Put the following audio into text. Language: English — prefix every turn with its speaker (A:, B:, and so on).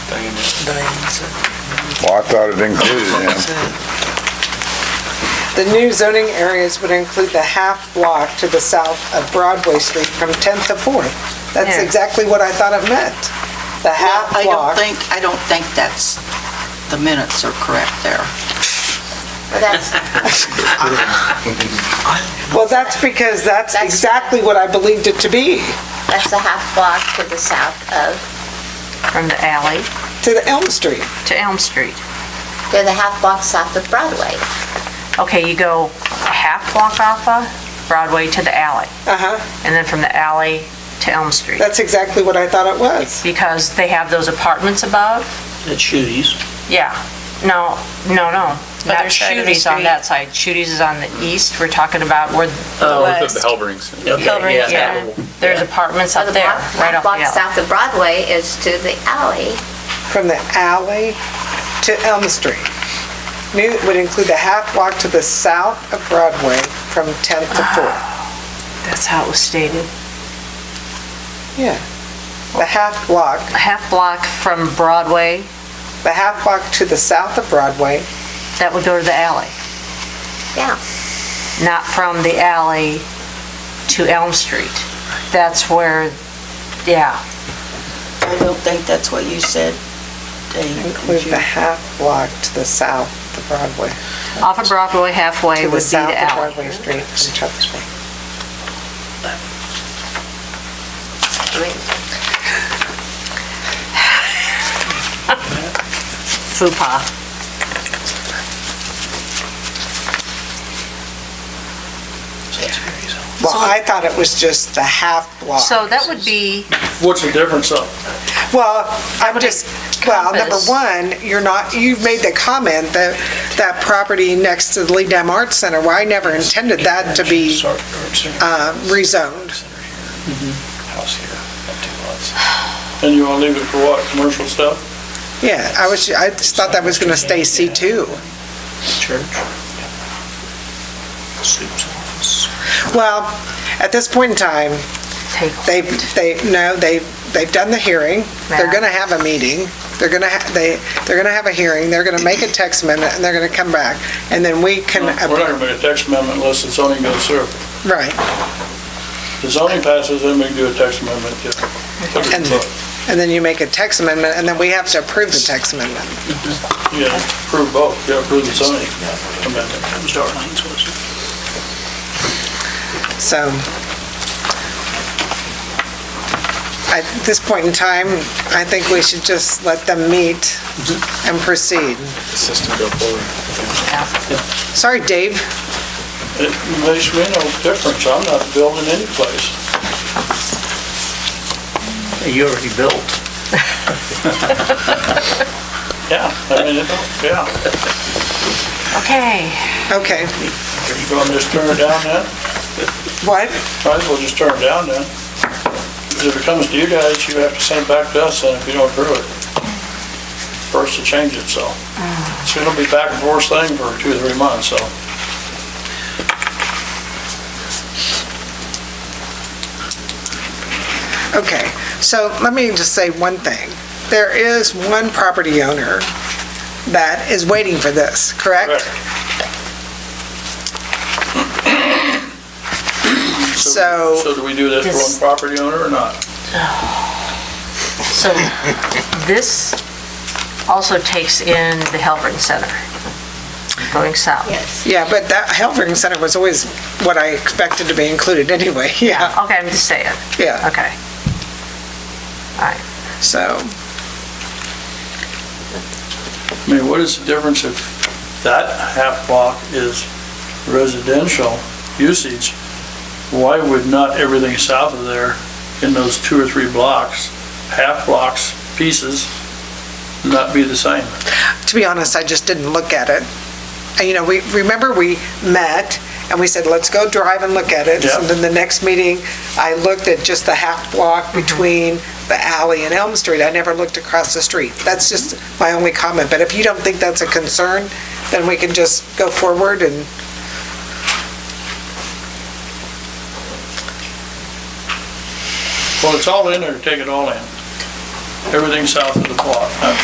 A: Diane's it.
B: Well, I thought it included
A: That's
B: him.
A: it.
C: The new zoning areas would include the half block to the south of Broadway Street from 10th to 4th. That's
A: Yeah.
C: exactly what I thought it meant. The
D: Well,
C: half
D: I don't
C: block.
D: think, I don't think that's, the minutes are correct there.
E: That's,
C: Well, that's because that's
E: That's-
C: exactly what I believed it to be,
E: that's the half block to the south of,
F: from the alley
C: to the Elm Street.
F: to Elm Street.
E: they're the half block south of Broadway.
F: Okay, you go a half block off of Broadway to the alley,
C: Uh-huh,
F: and then from the alley to Elm Street.
C: that's exactly what I thought it was.
F: Because they have those apartments above,
G: That's Shooties.
F: yeah. No, no, no,
H: Other
F: not
H: side of the
F: Shooties on
H: street.
F: that side. Shooties is on the east, we're talking about where,
G: Oh,
I: North of the Halberings.
G: okay,
H: Covered,
G: yeah.
F: yeah, there's apartments
E: So
F: up
E: the
F: there,
E: block-
F: right off
E: half
F: the
E: block
F: alley.
E: south of Broadway is to the alley.
C: From the alley to Elm Street. New would include the half block to the south of Broadway from 10th to
D: Ah.
C: 4th.
F: That's how it was stated.
C: Yeah. The half block,
F: A half block from Broadway,
C: the half block to the south of Broadway,
F: that would go to the alley,
E: Yeah.
F: not from the alley to Elm Street. That's where, yeah.
D: I don't think that's what you said, Dave.
C: include the half block to the south of Broadway.
F: Off of Broadway halfway
C: To
F: would be
C: the
F: the
C: south of
F: alley.
C: Broadway Street from Church Street.
E: I mean,
F: FUPA.
C: Well, I thought it was just the half block.
F: So that would be,
G: What's the difference though?
C: Well, I'm
F: would
C: just, well, number
F: encompass-
C: one, you're not, you've made the comment that that property next to the Lee Dam Arts Center, well, I never intended that to be
G: Sorry, Art Center.
C: uh, rezoned.
G: House here, two lots. And you wanna leave it for what, commercial stuff?
C: Yeah, I was, I just thought that was going to stay C2.
G: Church. Soup's office.
C: Well, at this point in time,
F: take,
C: They've, they, no, they've, they've done the hearing, they're gonna have a meeting, they're gonna, ha- they, they're gonna have a hearing, they're gonna make a text amendment, and they're gonna come back, and then we can,
G: We're not gonna make a text amendment unless the zoning goes through.
C: right,
G: The zoning passes, then we can do a text amendment,
C: And-
G: yeah.
C: and then you make a text amendment, and then we have to approve the text amendment.
G: You gotta approve both, you gotta approve the zoning amendment. Start lines was.
C: So, at this point in time, I think we should just let them meet and proceed.
I: The system go forward.
C: Sorry, Dave,
G: It makes me no difference, I'm not building any place.
J: You already built.
G: Yeah, I mean, it don't- yeah,
F: okay.
C: okay,
G: you gonna just turn it down then?
C: what?
G: Might as well just turn it down then. Because if it comes to you guys, you have to send it back to us, and if you don't approve it, first to change it, so. So it'll be back and forth thing for two, or three months, so.
C: Okay, so let me just say one thing. There is one property owner that is waiting for this, correct? So,
G: So do we do that for one property owner or not?
F: So this also takes in the Halbert Center, going south.
E: Yes.
C: yeah, but that Helfering Center was always what I expected to be included anyway, yeah,
F: Okay, I'm just saying,
C: yeah,
F: okay. All right.
C: so.
G: I mean, what is the difference if that half block is residential usage? Why would not everything south of there in those two or three blocks, half blocks, pieces, not be the same?
C: to be honest, I just didn't look at it. And, you know, we, remember we met and we said, let's go drive and look at it.
G: Yeah.
C: And then the next meeting, I looked at just the half block between the alley and Elm Street. I never looked across the street. That's just my only comment. But if you don't think that's a concern, then we can just go forward and.
G: Well, it's all in there, take it all in. Everything south of the block, not